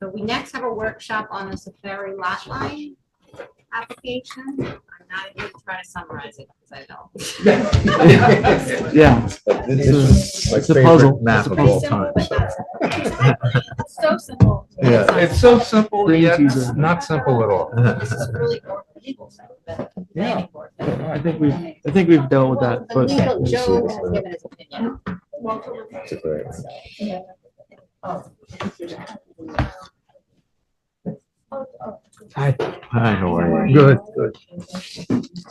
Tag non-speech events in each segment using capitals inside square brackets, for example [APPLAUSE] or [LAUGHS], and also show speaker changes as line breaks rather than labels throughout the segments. So we next have a workshop on the Safari lot line application. I'm not going to try to summarize it because I know.
[LAUGHS] Yeah,
Like, This
This
this is my
it's a
favorite
puzzle.
map
It's a
of
puzzle.
all time.
It's so simple.
Yeah.
It's so simple,
Brain
yet
teaser.
not simple at all.
This is really more legal stuff than the planning board.
I think we've, I think we've dealt with that,
Well,
but
the legal Joe has given his opinion.
It's a great one.
I,
Hi, how are you?
Good, good.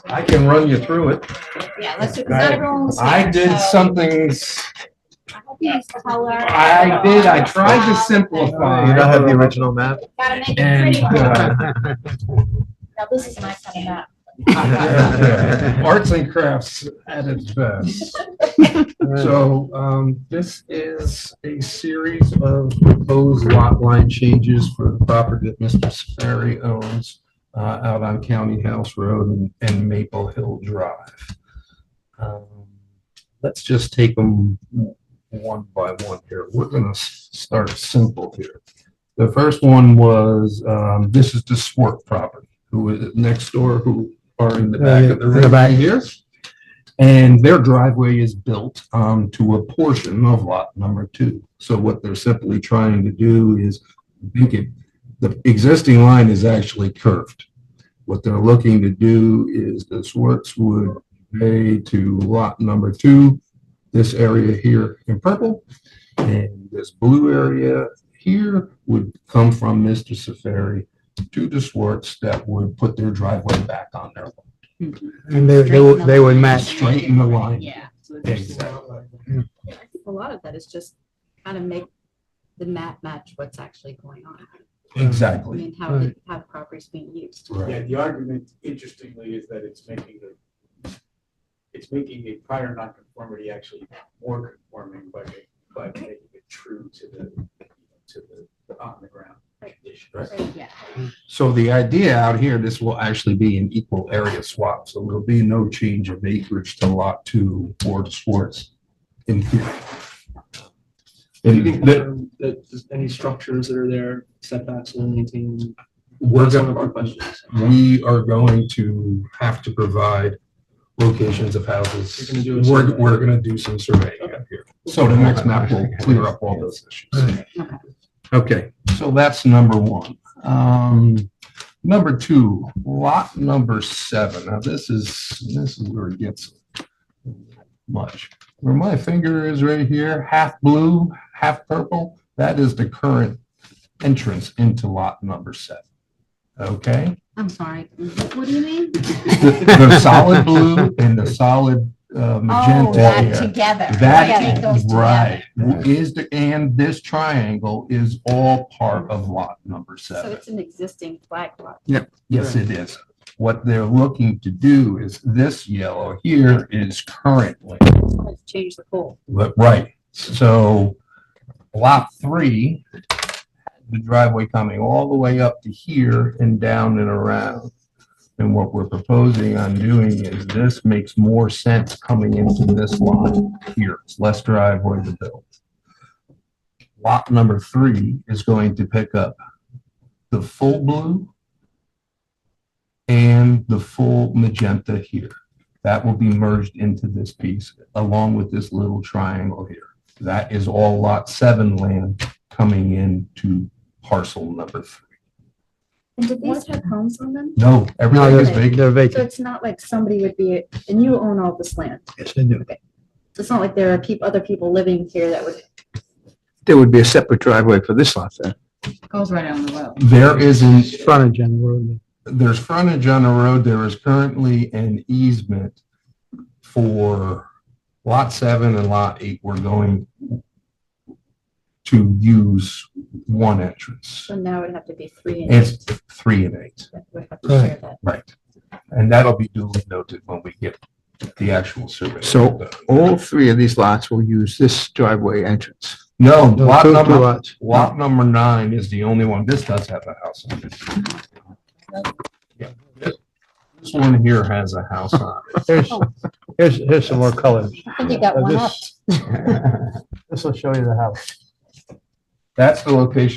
I can run you through it.
Yeah, let's do, because not everyone was.
I
here,
did
so
something, s-
I hope you use color.
I did, I tried to simplify.
You don't have the
[LAUGHS]
original map?
Gotta make it
And,
pretty.
uh,
Now, this is my kind of map.
Arts and crafts at its best. So um, this is a series of proposed lot line changes for the property that Mr. Sperry owns uh, out on County House Road and- and Maple Hill Drive. Um, Let's just take them one by one here. We're going to start simple here. The first one was, um, this is the Swart property, who is next door, who are Uh, in the back of the
In the
room here. And their driveway is built um, to a portion of lot number two. So what they're simply trying to do is make it, the existing line is actually curved. What they're looking to do is the Swarts would pay to lot number two, this area here in purple, and this blue area here would come from Mr. Safari to the Swarts that would put their driveway back on their lot.
and they, they would, they would match.
Straighten the line.
Yeah.
Exactly.
I think A lot of that is just kind of make the map match what's actually going on. I
Exactly.
mean, how, the- how the property's being used.
Yeah, the argument, interestingly, is that it's making the, it's making the prior nonconformity actually more conforming by, ma- by making it true to the, to the on-the-ground conditions.
Yeah.
So the idea out here, this will actually be an equal area swap, so there'll be no change of acreage to lot two or to Swartz in here.
You can
And the-
confirm that just any structures that are there, setbacks will maintain.
we're
That's one of
gonna,
our questions.
we are going to have to provide locations of houses.
You're gonna do a
We're,
survey.
we're gonna do some surveying up here. So the next map will clear up all those issues. Okay, so that's number one. Um, number two, lot number seven. Now this is, this is where it gets much. Where my finger is right here, half blue, half purple, that is the current entrance into lot number seven. Okay?
I'm sorry, what what do you
[LAUGHS]
mean?
The the solid blue and the solid uh, magenta. here.
Oh, together.
That, right, is the, and this triangle is all part of lot number
So
seven.
it's an existing flag lot.
Yes, it is. What they're looking to do is this yellow here is currently,
Let's change the pool.
but right, so lot three, the driveway coming all the way up to here and down and around. And what we're proposing on doing is this makes more sense coming into this lot here. It's less driveway to build. Lot number three is going to pick up the full blue and the full magenta here. That will be merged into this piece along with this little triangle here. That is all lot seven land coming into parcel number three.
And did these have homes on them?
No, everything is
they're-
vacant.
They're
So
vacant.
it's not like somebody would be, and you own all this land.
Yes, I do.
It's not like there are peop other people living here that would.
There would be a separate driveway for this lot then.
Goes right on the road.
There is an
It's Frontage on the road.
there's frontage on the road, there is currently an easement for lot seven and lot eight, we're going to use one entrance.
So now it would have to be three and
It's three and eight,
that would have to share that.
right. And that'll be duly noted when we get the actual survey.
So- All three of these lots will use this driveway entrance.
No,
No,
lot
two- two
number,
lots.
lot number nine is the only one, this does have a house on it. Yeah. This one here has a house on
Here's, here's, here's some more colors.
I think you got
Uh,
one up.
[LAUGHS] This
it.
this will show you the house.
That's the location